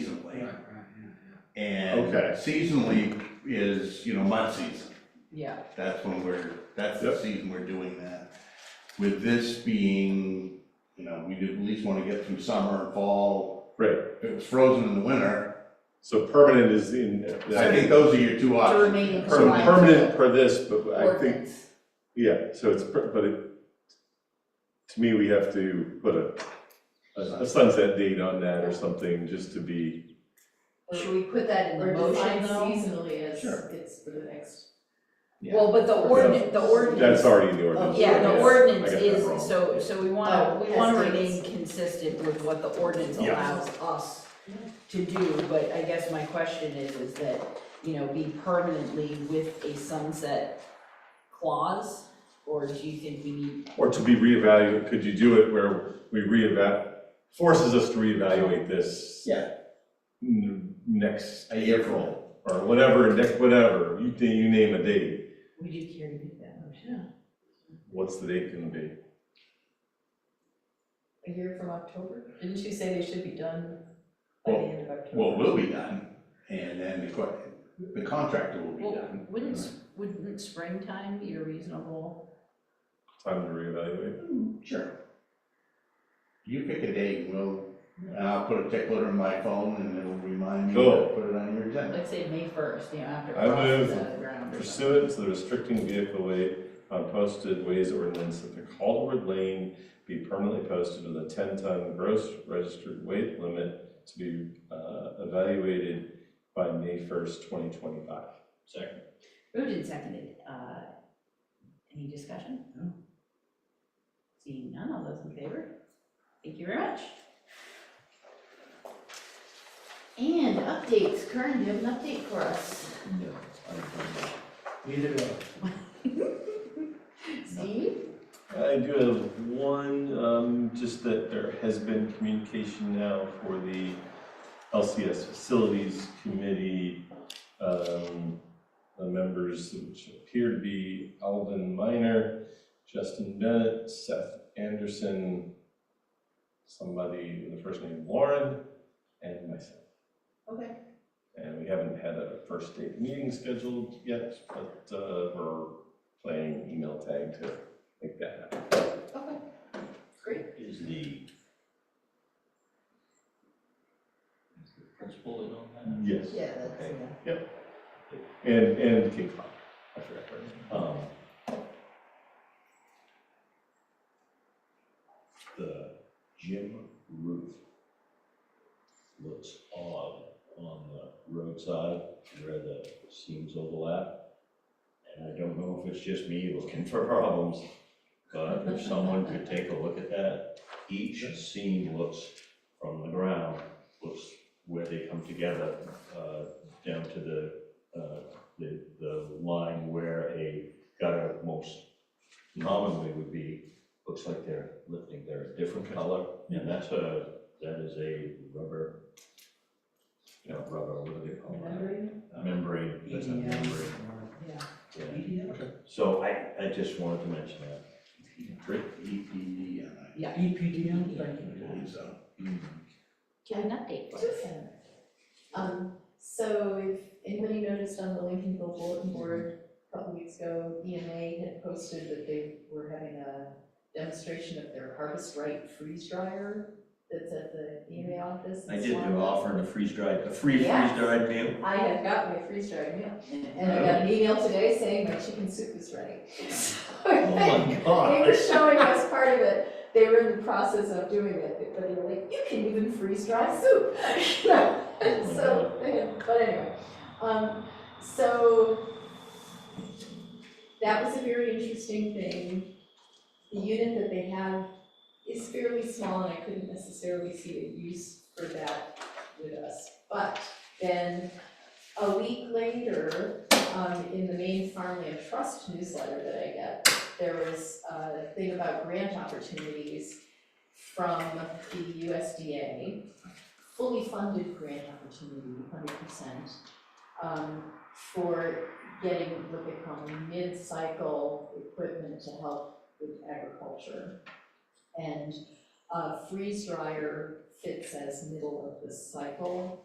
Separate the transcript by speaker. Speaker 1: seasonally. And
Speaker 2: Okay.
Speaker 1: seasonally is, you know, mud season.
Speaker 3: Yeah,
Speaker 1: That's when we're, that's the
Speaker 2: Yep.
Speaker 1: season we're doing that. With this being, you know, we do at least wanna get through summer and fall.
Speaker 2: Right.
Speaker 1: If it was frozen in the winter,
Speaker 2: So permanent is in,
Speaker 1: I think those are your two
Speaker 3: to
Speaker 1: options.
Speaker 3: remain in
Speaker 2: per-
Speaker 1: Permanent.
Speaker 3: compliance
Speaker 2: permanent
Speaker 3: with
Speaker 2: per this, but
Speaker 3: the
Speaker 2: I think,
Speaker 3: ordinance.
Speaker 2: yeah, so it's, per- but it, to me, we have to put a- a, a sunset date on that or something, just to be,
Speaker 3: Should we put that in the
Speaker 4: Or define
Speaker 3: motion though?
Speaker 4: seasonally as
Speaker 1: Sure.
Speaker 4: it's for the next.
Speaker 1: Yeah.
Speaker 3: Well, but the ordinance, the ordinance, Oh,
Speaker 2: that's already in the ordinance.
Speaker 3: yeah,
Speaker 2: I
Speaker 3: the
Speaker 2: guess.
Speaker 3: ordinance
Speaker 2: I got that
Speaker 3: is,
Speaker 2: wrong.
Speaker 3: so, so we wanna,
Speaker 4: Oh,
Speaker 3: we wanna
Speaker 4: as
Speaker 3: remain
Speaker 4: is.
Speaker 3: consistent with what the ordinance
Speaker 1: Yeah.
Speaker 3: allows us to do, but I guess my question is, is that, you know, be permanently with a sunset clause? Or do you think we need,
Speaker 2: Or to be reevaluated, could you do it where we reevaluate, forces us to reevaluate this?
Speaker 1: Yeah.
Speaker 2: n- Next
Speaker 1: A year from now.
Speaker 2: April, or whatever, next, whatever, you, you name a date,
Speaker 4: Would you care to make that motion?
Speaker 2: what's the date gonna be?
Speaker 4: A year from October? Didn't you say they should be done by the
Speaker 1: Well,
Speaker 4: end of October?
Speaker 1: Well, we'll be done, and then the, co- the contractor will be
Speaker 3: well,
Speaker 1: done.
Speaker 3: wouldn't, s- wouldn't springtime be a reasonable?
Speaker 2: Time to reevaluate?
Speaker 1: Sure. You pick a date, and we'll, and I'll put a tickler in my phone and it'll remind me to
Speaker 2: Cool.
Speaker 1: put it on your agenda.
Speaker 3: Let's say May first, you know, after
Speaker 2: I
Speaker 3: frost is
Speaker 2: move
Speaker 3: out of the ground or something.
Speaker 2: Pursuant to the restricting vehicle weight on posted ways ordinance, that the Calderwood Lane be permanently posted with a ten-ton gross registered weight limit to be uh, evaluated by May first, twenty twenty-five. Second.
Speaker 3: Moved and seconded, uh, any discussion?
Speaker 1: No.
Speaker 3: Seeing none, all those in favor? Thank you very much. And updates, Karen, do you have an update for us?
Speaker 5: No, I don't think so. Neither do
Speaker 3: Steve?
Speaker 2: I do have one, um, just that there has been communication now for the LCS Facilities Committee. Um, the members which appear to be Alvin Minor, Justin Bennett, Seth Anderson, somebody with the first name Lauren, and myself.
Speaker 3: Okay.
Speaker 2: And we haven't had a first date meeting scheduled yet, but, uh, we're playing email tag to make that happen.
Speaker 3: Okay, great.
Speaker 5: I. Is the. Is the principal in on
Speaker 2: Yes.
Speaker 3: Yeah,
Speaker 5: Okay.
Speaker 2: And, and King Cloud, I forgot her. Um,
Speaker 5: that? The gym roof looks odd on the roadside where the seams overlap. And I don't know if it's just me looking for problems, but if someone could take a look at that, each seam looks from the ground, looks where they come together, uh, down to the, uh, the, the line where a gutter most commonly would be, looks like they're lifting, they're a different color, and that's a, that is a rubber, you know, rubber, what do they call that?
Speaker 4: Remembering?
Speaker 5: Membrane, that's a membrane,
Speaker 4: Yeah.
Speaker 5: yeah.
Speaker 1: EDM?
Speaker 5: So I, I just wanted to mention that.
Speaker 1: E EPDM,
Speaker 3: Yeah,
Speaker 4: EPDM,
Speaker 1: I believe so.
Speaker 3: give an update for us.
Speaker 4: Um, so if anybody noticed on the Lincolnville bulletin board, a couple weeks ago, EMA had posted that they were having a demonstration of their Harvest Right freeze dryer that's at the EMA office. in
Speaker 5: I did,
Speaker 4: Swan.
Speaker 5: they're offering a freeze dried, a free freeze
Speaker 4: Yes.
Speaker 5: dried meal.
Speaker 4: I have got my freeze dried meal, and I got an email today saying my chicken soup is ready. So
Speaker 5: Oh my
Speaker 4: They were
Speaker 5: god.
Speaker 4: showing us part of it, they were in the process of doing it, but they were like, you can even freeze dry soup. You know, So, they- but anyway, um, so that was a very interesting thing. The unit that they have is fairly small and I couldn't necessarily see a use for that with us. But then a week later, um, in the main farmland trust newsletter that I get, there was a thing about grant opportunities from the USDA, fully funded grant opportunity, hundred percent, um, for getting what they call mid-cycle equipment to help with agriculture. And a uh, freeze dryer fits as middle of the cycle.